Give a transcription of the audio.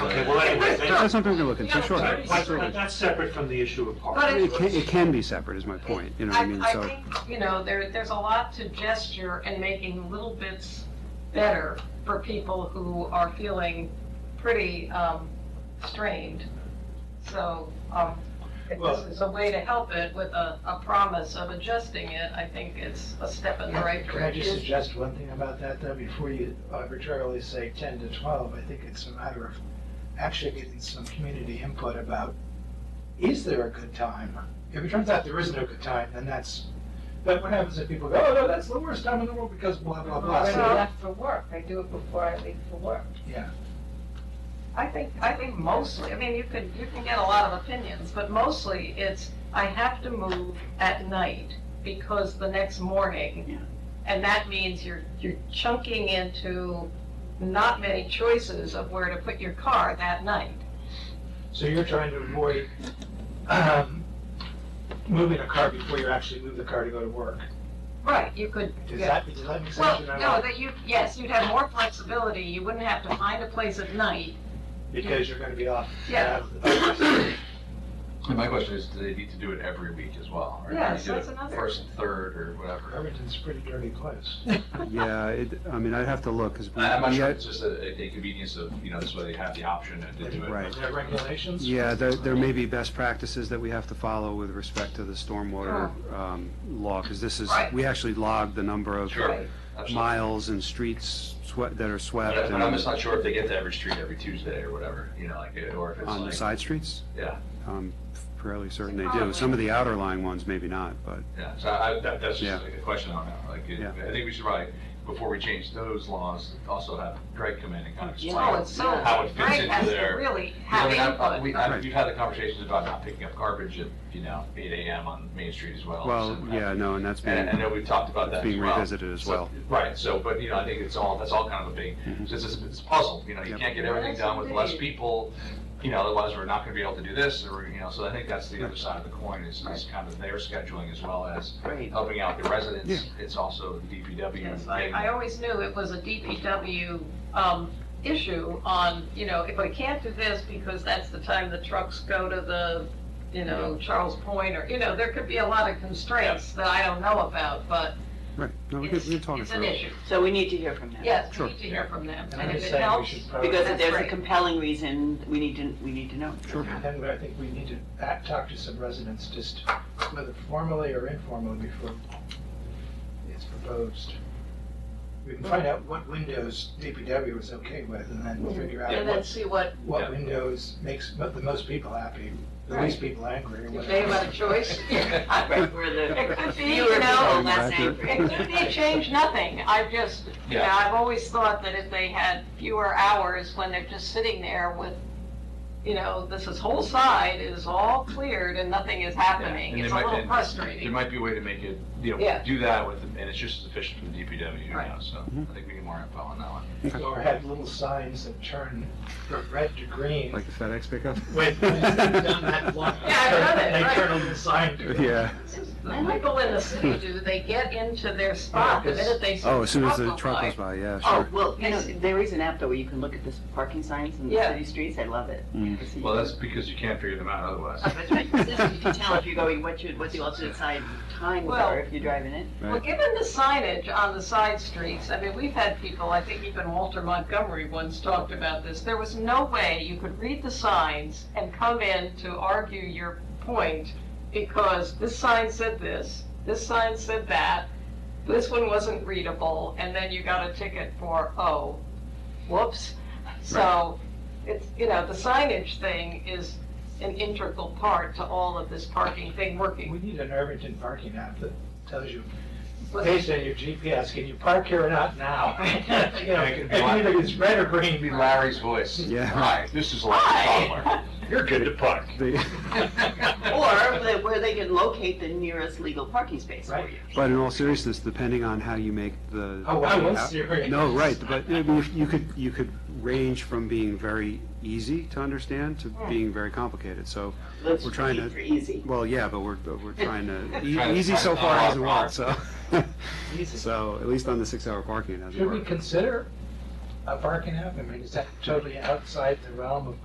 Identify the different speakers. Speaker 1: Okay, well, anyway, they-
Speaker 2: That's something we can look into, sure.
Speaker 1: That- that's-
Speaker 2: absolutely.
Speaker 1: That's separate from the issue of
Speaker 3: But
Speaker 1: parking.
Speaker 2: It can, it can be separate, is my point, you know what I mean,
Speaker 3: I
Speaker 2: so.
Speaker 3: think, you know, there, there's a lot to gesture and making little bits better for people who are feeling pretty um, strained. So um, if
Speaker 1: Well-
Speaker 3: this is a way to help it with a, a promise of adjusting it, I think it's a step in the right
Speaker 4: Can I just
Speaker 3: direction.
Speaker 4: suggest one thing about that, though, before you arbitrarily say ten to twelve, I think it's a matter of actually getting some community input about, is there a good time? If it turns out there isn't a good time, then that's, but what happens if people go, oh, no, that's the worst time in the world because blah, blah, blah.
Speaker 5: When I
Speaker 4: So,
Speaker 5: left for work, I do it before I leave for work.
Speaker 3: I think, I think mostly, I mean, you could, you can get a lot of opinions, but mostly it's, I have to move at night because the next
Speaker 6: Yeah.
Speaker 3: morning. And that means you're, you're chunking into not many choices of where to put your car that night.
Speaker 4: so you're trying to avoid, um, moving a car before you actually move the car to go to work.
Speaker 3: Right, you could,
Speaker 4: Does
Speaker 3: yeah.
Speaker 4: that, does that make sense?
Speaker 3: well,
Speaker 4: You're not
Speaker 3: no,
Speaker 4: allowed-
Speaker 3: that you, yes, you'd have more flexibility, you wouldn't have to find a place at night.
Speaker 4: Because you're gonna be off.
Speaker 3: Yeah.
Speaker 4: Uh,
Speaker 7: And my question is, do they need to do it every week as well? Or do
Speaker 3: Yes,
Speaker 7: they do
Speaker 3: that's
Speaker 7: it
Speaker 3: another-
Speaker 7: First and third or whatever.
Speaker 4: Irvington's a pretty dirty place.
Speaker 2: Yeah, it, I mean, I'd have to look, because.
Speaker 7: I- I'm not sure, it's just a, a convenience of, you know, this way they have the option and to do it.
Speaker 2: Right.
Speaker 4: Are there regulations?
Speaker 2: Yeah, there, there may be best practices that we have to follow with respect to the stormwater, um, law, because this is,
Speaker 3: Right.
Speaker 2: we actually log the number of
Speaker 7: Sure. absolutely.
Speaker 2: miles and streets swept, that are swept.
Speaker 7: But but I'm
Speaker 2: and-
Speaker 7: just not sure if they get to every street every Tuesday or whatever, you know, like, uh, or if it's
Speaker 2: On the
Speaker 7: like,
Speaker 2: side streets?
Speaker 7: yeah,
Speaker 2: I'm fairly certain they do. Some of the outer line ones, maybe not, but,
Speaker 7: yeah. So I, that, that's just
Speaker 2: Yeah.
Speaker 7: a question on that. Like, it-
Speaker 2: Yeah.
Speaker 7: I think we should probably, before we change those laws, also have Greg come in and kind of
Speaker 6: Yeah.
Speaker 7: explain.
Speaker 3: Oh, it's so,
Speaker 7: How it fits
Speaker 3: Greg
Speaker 7: into
Speaker 3: has to
Speaker 7: their-
Speaker 3: really
Speaker 7: I
Speaker 3: have
Speaker 7: mean, I've- I've-
Speaker 3: input.
Speaker 7: we- I've-
Speaker 2: Right.
Speaker 7: We've had the conversations about not picking up garbage at, you know, eight AM on Main Street as well.
Speaker 2: well,
Speaker 7: Oh, So,
Speaker 2: yeah, no, and that's
Speaker 7: And I
Speaker 2: being,
Speaker 7: know we've talked about
Speaker 2: it's
Speaker 7: that as well.
Speaker 2: being revisited as
Speaker 7: So-
Speaker 2: well.
Speaker 7: Right, so, but, you know, I think it's all, that's all kind of a big,
Speaker 2: Mhm.
Speaker 7: it's, it's it's a puzzle, you know, you
Speaker 2: Yep.
Speaker 7: can't get everything done with less people, you know, otherwise we're not gonna be able to do this, or, you know, so I think that's the other side of the coin, is, is kind of their scheduling as well as
Speaker 6: Right.
Speaker 7: helping out the residents. It's also the DPW.
Speaker 3: Yes, I,
Speaker 7: getting-
Speaker 3: I always knew it was a DPW, um, issue on, you know, if I can't do this because that's the time the trucks go to the, you know, Charles Point, or, you know, there could be a lot of constraints that I don't know about, but
Speaker 2: Right, no, we
Speaker 3: it's,
Speaker 2: could, we could talk it
Speaker 3: it's an
Speaker 2: through.
Speaker 3: issue.
Speaker 6: So we need to hear from them.
Speaker 3: Yes, we
Speaker 2: Sure.
Speaker 3: need to hear from them,
Speaker 4: And
Speaker 3: and
Speaker 4: I'm
Speaker 3: if
Speaker 4: just
Speaker 3: it
Speaker 4: saying we
Speaker 3: helps,
Speaker 4: should
Speaker 6: Because
Speaker 4: probably,
Speaker 6: if
Speaker 3: That's
Speaker 6: there's a
Speaker 3: right.
Speaker 6: compelling reason, we need to, we need to know.
Speaker 2: Sure.
Speaker 4: and I think we need to act- talk to some residents, just whether formally or informally before it's proposed. We can find out what windows DPW is okay with and then figure out
Speaker 3: and then
Speaker 4: what,
Speaker 3: see what,
Speaker 7: Yeah.
Speaker 4: what windows makes mo- the most people happy, the least people angry. or
Speaker 3: if
Speaker 4: whatever.
Speaker 3: they have a choice.
Speaker 6: Right, where the
Speaker 3: It could be,
Speaker 6: fewer
Speaker 3: you know,
Speaker 6: people, less
Speaker 2: Exactly.
Speaker 6: angry.
Speaker 3: It could be change nothing, I've just, you know,
Speaker 7: Yeah.
Speaker 3: I've always thought that if they had fewer hours when they're just sitting there with, you know, this is whole side is all cleared and nothing is
Speaker 7: Yeah,
Speaker 3: happening,
Speaker 7: and
Speaker 3: it's a
Speaker 7: there might-
Speaker 3: little
Speaker 7: and There
Speaker 3: frustrating.
Speaker 7: might be a way to make it, you know,
Speaker 3: Yeah.
Speaker 7: do that with, and it's just as efficient for the DPW, you
Speaker 3: Right.
Speaker 7: know, so
Speaker 2: Mm-hmm.
Speaker 7: I think we need more info on that one.
Speaker 4: Or have little signs that turn from red to green.
Speaker 2: Like the FedEx pickup?
Speaker 4: When, when it's done that long.
Speaker 3: Yeah, I've done it,
Speaker 4: They
Speaker 3: right.
Speaker 4: turn on the sign to green.
Speaker 2: Yeah,
Speaker 3: The people in the city do, they get into
Speaker 7: Oh,
Speaker 3: their spot the minute they see.
Speaker 2: oh, as soon as
Speaker 3: the
Speaker 2: the truck
Speaker 3: go
Speaker 2: goes by, yeah,
Speaker 6: Oh,
Speaker 2: sure.
Speaker 6: well, you know, there is an app though where you can look at the parking signs in the
Speaker 3: Yeah.
Speaker 6: city streets. I love it.
Speaker 2: Mm.
Speaker 6: Because you-
Speaker 7: Well, that's because you can't figure them out otherwise.
Speaker 6: Oh, That's right. You can tell if you're going, what you, what the alternate side times
Speaker 3: Well-
Speaker 6: are if you're driving it.
Speaker 3: Well, given the signage on the side streets, I mean, we've had people, I think even Walter Montgomery once talked about this. There was no way you could read the signs and come in to argue your point because this sign said this, this sign said that, this one wasn't readable, and then you got a ticket for, oh, whoops. So it's, you know, the signage thing is an integral part to all of this parking thing
Speaker 4: We
Speaker 3: working.
Speaker 4: need an Irvington parking app that tells you, based on your GPS, can you park here or not now? You know,
Speaker 7: It could
Speaker 4: and
Speaker 7: be like-
Speaker 4: either it's red or
Speaker 7: It'd be
Speaker 4: green.
Speaker 7: Larry's voice.
Speaker 2: Yeah.
Speaker 7: Hi, this is Larry Butler.
Speaker 3: Hi.
Speaker 7: You're good to park.
Speaker 4: Oh.
Speaker 2: The-
Speaker 6: Or they- where they can locate the nearest legal parking space for
Speaker 4: Right.
Speaker 6: you.
Speaker 2: But in all seriousness, depending on how you make the.
Speaker 4: Oh, I was
Speaker 2: out-
Speaker 4: serious.
Speaker 2: No, right, but I mean, if you could, you could range from being very easy to understand to
Speaker 4: Oh.
Speaker 2: being very complicated, so,
Speaker 6: Let's
Speaker 2: We're trying to-
Speaker 6: keep it easy.
Speaker 2: well, yeah, but we're, but we're trying to,
Speaker 7: Trying to
Speaker 2: e- easy so
Speaker 7: find
Speaker 2: far
Speaker 7: a
Speaker 2: hasn't
Speaker 7: lot
Speaker 2: worked, so. So, at least on the six-hour parking, it hasn't
Speaker 4: Should we
Speaker 2: worked.
Speaker 4: consider a parking app? I mean, is that totally outside the realm of